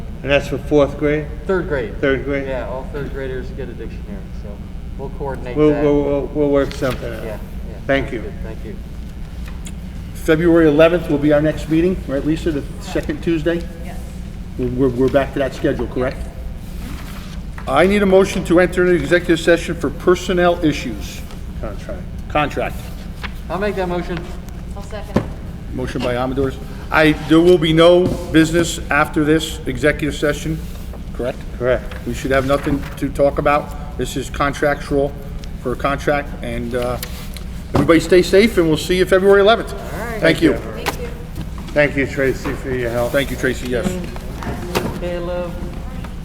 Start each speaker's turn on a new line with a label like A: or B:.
A: And that's for fourth grade,
B: Third grade.
A: third grade?
B: Yeah, all third graders get a dictionary, so we'll coordinate
A: We'll,
B: that.
A: we'll, we'll- we'll work something
B: Yeah, yeah.
A: out. Thank you.
B: Good, Thank you.
C: February 11th will be our next meeting, right, Lisa, the second Tuesday?
D: Yes.
C: We're- We're, we're back to that schedule, correct? I need a motion to enter an executive session for personnel issues. Contract. Contract.
B: I'll make that motion.
D: I'll second.
C: Motion by Amador. I, there will be no business after this executive session, correct?
A: Correct.
C: We should have nothing to talk about. This is contractual for a contract, and uh, everybody stay safe, and we'll see you February 11th. Thank you.
D: Thank you.
A: Thank you, Tracy, for your help.
C: Thank you, Tracy, yes.
B: Caleb.